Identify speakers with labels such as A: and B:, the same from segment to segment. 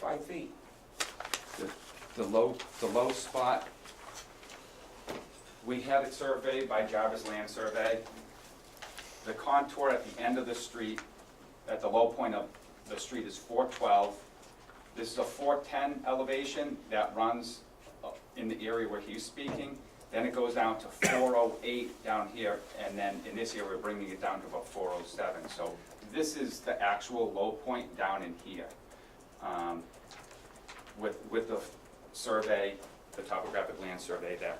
A: five feet.
B: The- The low, the low spot, we had it surveyed by Jarvis Land Survey. The contour at the end of the street, at the low point of the street is 412. This is a 410 elevation that runs uh, in the area where he's speaking. Then it goes down to 408 down here, and then in this area, we're bringing it down to about 407. So this is the actual low point down in here. Um, with, with the survey, the topographic land survey that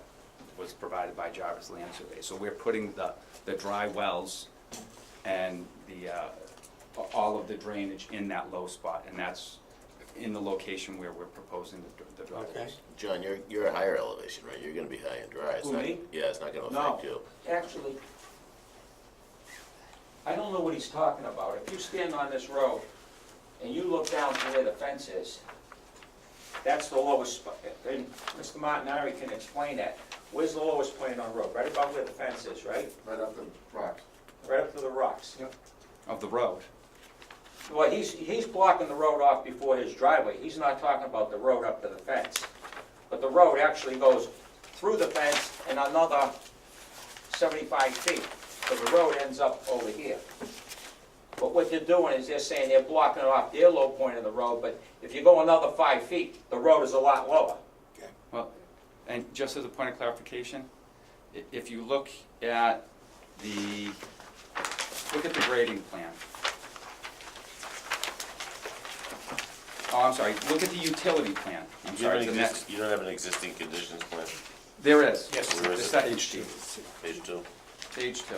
B: was provided by Jarvis Land Survey. So we're putting the, the dry wells and the, uh, all of the drainage in that low spot, and that's in the location where we're proposing the, the dry wells.
C: John, you're, you're a higher elevation, right? You're gonna be high and dry. It's
A: Who,
C: not-
A: me?
C: Yeah, it's not gonna
A: No.
C: affect you.
A: Actually, I don't know what he's talking about. If you stand on this road and you look down to where the fence is, that's the lowest, spot. and Mr. Martinari can explain that. Where's the lowest point on the road? Right about where the fence is, right?
D: right up the rock.
A: Right up to the rocks.
B: Of the road.
A: Well, he's, he's blocking the road off before his driveway. He's not talking about the road up to the fence. But the road actually goes through the fence and another 75 feet. So the road ends up over here. But what they're doing is they're saying they're blocking off their low point of the road, but if you go another five feet, the road is a lot lower.
B: Well, and just as a point of clarification, i- if you look at the, look at the grading plan. Oh, I'm sorry, look at the utility plan. I'm
C: You don't
B: sorry, the
C: exist-
B: next,
C: You don't have an existing conditions plan,
B: there is.
C: Yes. Where
B: The
C: is it?
B: second sheet,
C: page two?
B: page two.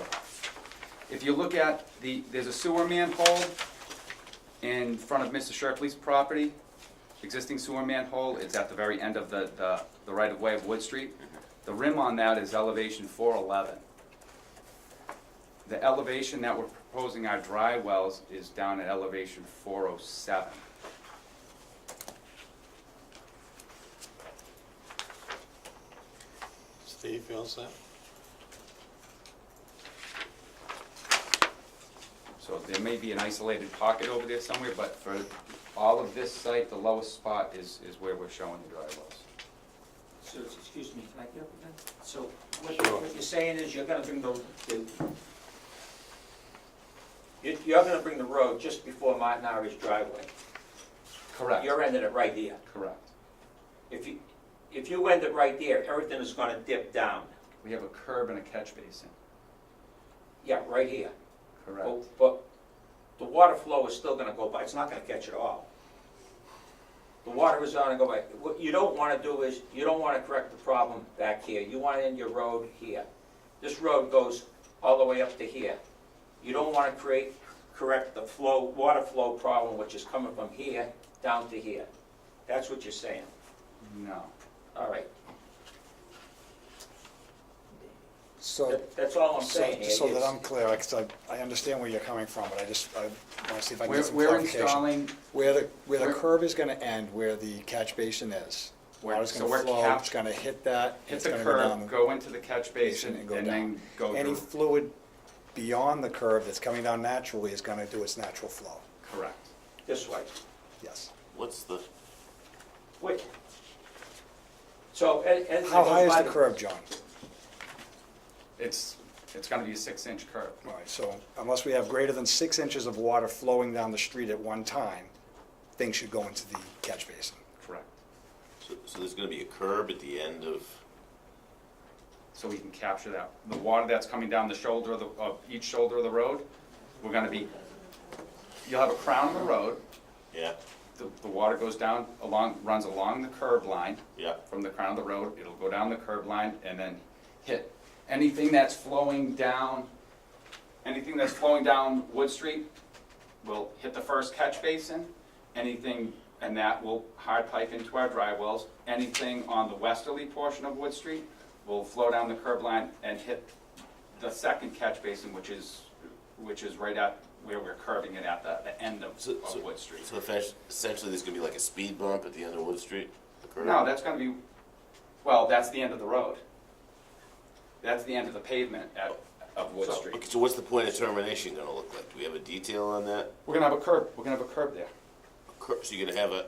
B: If you look at the, there's a sewer manhole in front of Mr. Shirkley's property, existing sewer manhole, it's at the very end of the, the, the right-of-way of Wood Street.
A: Mm-hmm.
B: The rim on that is elevation four eleven. The elevation that we're proposing our dry wells is down at elevation four oh seven.
E: Steve feels that?
B: So there may be an isolated pocket over there somewhere, but for all of this site, the lowest spot is, is where we're showing the dry wells.
A: So, excuse me, can I get up again? So what you- what you're saying is you're gonna bring the, the- you- you're gonna bring the road just before Martinari's driveway.
B: Correct,
A: You're ending it right there.
B: correct.
A: If you, if you end it right there, everything is gonna dip down.
B: We have a curb and a catch basin,
A: Yeah, right here.
B: correct?
F: Oh.
A: But, but the water flow is still gonna go by, it's not gonna catch it all. The water is gonna go by. What you don't wanna do is, you don't wanna correct the problem back here. You wanna end your road here. This road goes all the way up to here. You don't wanna create, correct the flow, water flow problem, which is coming from here down to here. That's what you're saying.
B: No,
A: All right,
F: So,
A: That- that's all I'm
F: so
A: saying here.
F: so that
A: It's-
F: I'm clear, because I, I understand where you're coming from, but I just, I want to see if I can
B: we're,
F: get some
B: we're
F: clarification.
B: installing,
F: Where the, where the
B: we're-
F: curb is going to end, where the catch basin is,
B: Where-
F: water's
B: so
F: going
B: we're
F: to flow,
B: cap-
F: it's going to hit that,
B: hit
F: it's
B: the
F: going to go down.
B: curb, go into the catch basin,
F: and
B: and
F: go down.
B: then go
F: Any
B: to,
F: fluid beyond the curb that's coming down naturally is going to do its natural flow,
B: correct.
A: This way.
F: yes.
C: What's the,
A: Wait. So, and, and.
F: How high is the curb, John?
B: It's, it's gonna be a six-inch curb.
F: All right, so unless we have greater than six inches of water flowing down the street at one time, things should go into the catch basin.
B: Correct.
C: so, so there's gonna be a curb at the end of,
B: So we can capture that. The water that's coming down the shoulder of, the of each shoulder of the road, we're gonna be, you'll have a crown of the road,
C: yeah,
B: the, the water goes down along, runs along the curb line.
C: yeah,
B: from the crown of the road, it'll go down the curb line and then hit anything that's flowing down, anything that's flowing down Wood Street will hit the first catch basin, anything, and that will hard pipe into our dry wells. Anything on the westerly portion of Wood Street will flow down the curb line and hit the second catch basin, which is, which is right at where we're curving it at the, the end of,
C: So-
B: of Wood Street.
C: so effect- essentially there's gonna be like a speed bump at the end of Wood Street? a curb?
B: No, that's gonna be, well, that's the end of the road. That's the end of the pavement at, of Wood
A: So-
B: Street.
C: Okay, so what's the point of termination gonna look like? Do we have a detail on that?
B: We're gonna have a curb, we're gonna have a curb there.
C: Cur- So you're gonna have a,